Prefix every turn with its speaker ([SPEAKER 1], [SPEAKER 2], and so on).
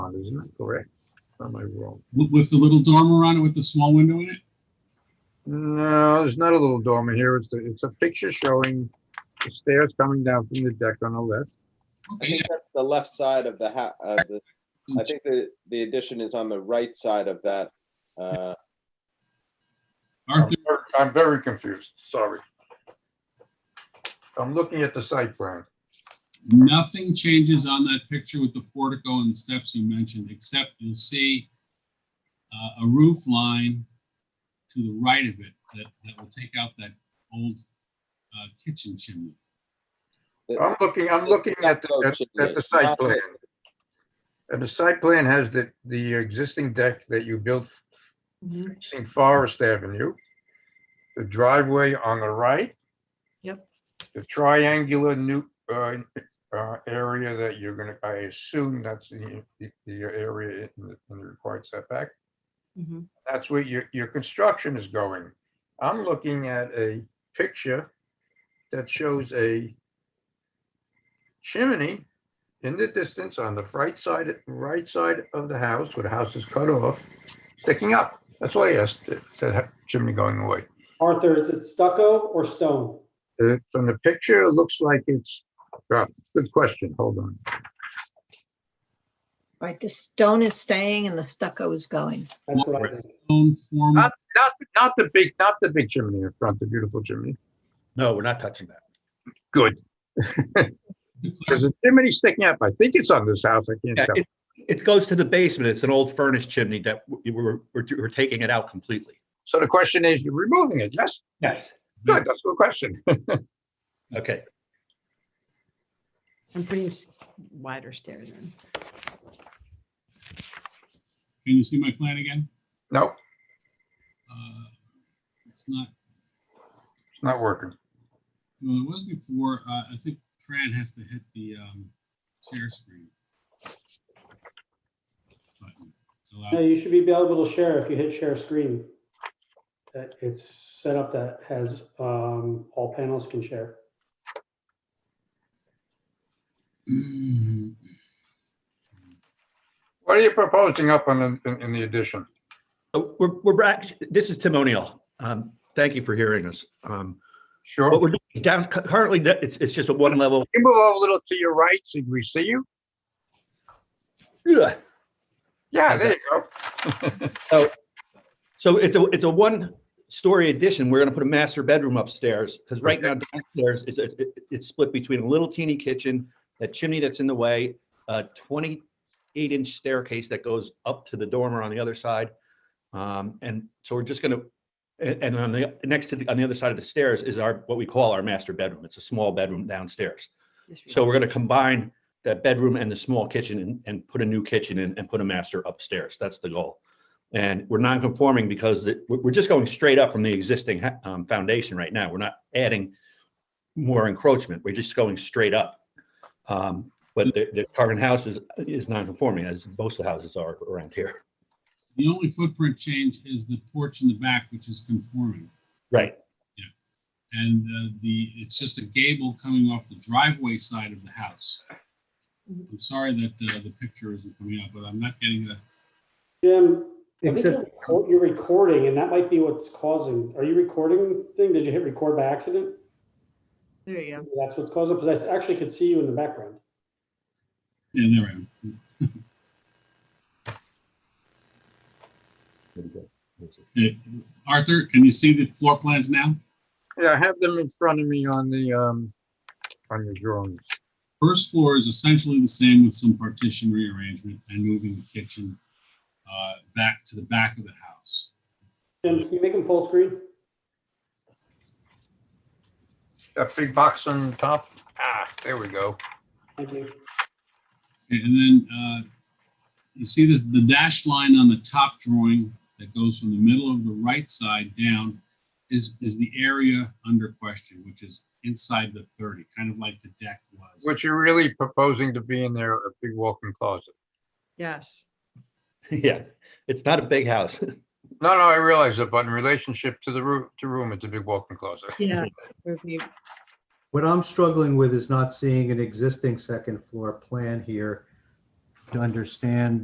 [SPEAKER 1] on it, isn't that correct? Or am I wrong?
[SPEAKER 2] With with the little dormer on it with the small window in it?
[SPEAKER 1] No, there's not a little dormer here. It's, the- it's a picture showing the stairs coming down from the deck on the left.
[SPEAKER 3] I
[SPEAKER 2] Okay,
[SPEAKER 3] think that's the left side of the ha, of the, I think the, the addition is on the right side of that. uh,
[SPEAKER 2] yeah. Arthur,
[SPEAKER 1] I'm very confused, sorry. I'm looking at the site plan.
[SPEAKER 2] nothing changes on that picture with the portico and the steps you mentioned, except you'll see uh, a roof line to the right of it that, that will take out that old uh, kitchen chimney.
[SPEAKER 1] I'm looking, I'm looking at, the- at at the site plan. And the site plan has the, the existing deck that you built
[SPEAKER 4] Mm-hmm,
[SPEAKER 5] Mhm.
[SPEAKER 1] facing Forest Avenue. The driveway on the right.
[SPEAKER 5] Yep.
[SPEAKER 1] The triangular new, uh, uh, area that you're gonna, I assume that's the, the the area in the in the required setback.
[SPEAKER 4] mm-hmm.
[SPEAKER 5] Mhm.
[SPEAKER 1] That's where your, your construction is going. I'm looking at a picture that shows a chimney in the distance on the right side, right side of the house, where the house is cut off, sticking up. That's why I asked, that- that chimney going away.
[SPEAKER 6] Arthur, is it stucco or stone?
[SPEAKER 1] Uh, From the picture, it looks like it's, uh, good question, hold on.
[SPEAKER 5] Right, the stone is staying and the stucco is going.
[SPEAKER 6] That's what I think.
[SPEAKER 2] Own form,
[SPEAKER 1] Not, not, not the big, not the big chimney in front, the beautiful chimney.
[SPEAKER 7] No, we're not touching that.
[SPEAKER 1] Good.
[SPEAKER 2] declare
[SPEAKER 1] There's a chimney sticking up. I think it's on this house, I can't
[SPEAKER 7] Yeah,
[SPEAKER 1] tell.
[SPEAKER 7] it, it goes to the basement. It's an old furnace chimney that we- we're, we're, we're taking it out completely.
[SPEAKER 1] So the question is, you're removing it, yes?
[SPEAKER 7] Yes.
[SPEAKER 1] Good, that's a good question.
[SPEAKER 7] Okay,
[SPEAKER 4] I'm putting s- wider stairs in.
[SPEAKER 2] can you see my plan again?
[SPEAKER 1] No,
[SPEAKER 2] Uh, It's not,
[SPEAKER 1] it's not working.
[SPEAKER 2] well, it was before, uh, I think Fran has to hit the um, share screen. button. It's allowed.
[SPEAKER 6] No, you should be able to share if you hit share screen. That It's set up that has, um, all panels can share.
[SPEAKER 2] Mm,
[SPEAKER 1] What are you proposing up on, the- in, in the addition?
[SPEAKER 7] So we're, we're back. This is Tim O'Neill. Um, thank you for hearing us. Um,
[SPEAKER 1] Sure.
[SPEAKER 7] what we're
[SPEAKER 1] You
[SPEAKER 7] doing is down, cu- currently, that- it's, it's just a one level.
[SPEAKER 1] move over a little to your right so we see you?
[SPEAKER 7] Ugh.
[SPEAKER 1] Yeah,
[SPEAKER 7] How's
[SPEAKER 1] there you go.
[SPEAKER 7] So it's a, it's a one story addition. We're gonna put a master bedroom upstairs because right now downstairs is, it- it- it's split between a little teeny kitchen, that chimney that's in the way, a twenty-eight inch staircase that goes up to the dormer on the other side. Um, and so we're just gonna, and, and on the, next to the, on the other side of the stairs is our, what we call our master bedroom. It's a small bedroom downstairs.
[SPEAKER 4] Just
[SPEAKER 7] So we're gonna combine that bedroom and the small kitchen and, and put a new kitchen in and put a master upstairs. That's the goal. And we're non-conforming because it- we're, we're just going straight up from the existing ha- um, foundation right now. We're not adding more encroachment. We're just going straight up. Um, But the, the current house is, is non-conforming as most of the houses are around here.
[SPEAKER 2] The only footprint change is the porch in the back, which is conforming.
[SPEAKER 7] Right.
[SPEAKER 2] And uh, the, it's just a gable coming off the driveway side of the house. I'm sorry that uh, the picture isn't coming up, but I'm not getting a,
[SPEAKER 6] Jim, I think you're
[SPEAKER 8] Except,
[SPEAKER 6] record- you're recording and that might be what's causing, are you recording thing? Did you hit record by accident?
[SPEAKER 4] There you go.
[SPEAKER 6] That's what's causing, because I actually could see you in the background.
[SPEAKER 2] yeah, there I am. Uh, Arthur, can you see the floor plans now?
[SPEAKER 1] Yeah, I have them in front of me on the, um, on your drawings.
[SPEAKER 2] First floor is essentially the same with some partition rearrangement and moving the kitchen uh, back to the back of the house.
[SPEAKER 6] Jim, can you make them full screen?
[SPEAKER 1] That big box on top, ah, there we go.
[SPEAKER 6] Thank you.
[SPEAKER 2] Okay, And then uh, you see this, the dashed line on the top drawing that goes from the middle of the right side down is, is the area under question, which is inside the 30, kind of like the deck was.
[SPEAKER 1] What you're really proposing to be in there, a big walk-in closet.
[SPEAKER 4] Yes.
[SPEAKER 7] Yeah, it's not a big house.
[SPEAKER 1] No, no, I realize that, but in relationship to the room, to room, it's a big walk-in closet.
[SPEAKER 4] Yeah. Would be-
[SPEAKER 8] what I'm struggling with is not seeing an existing second floor plan here to understand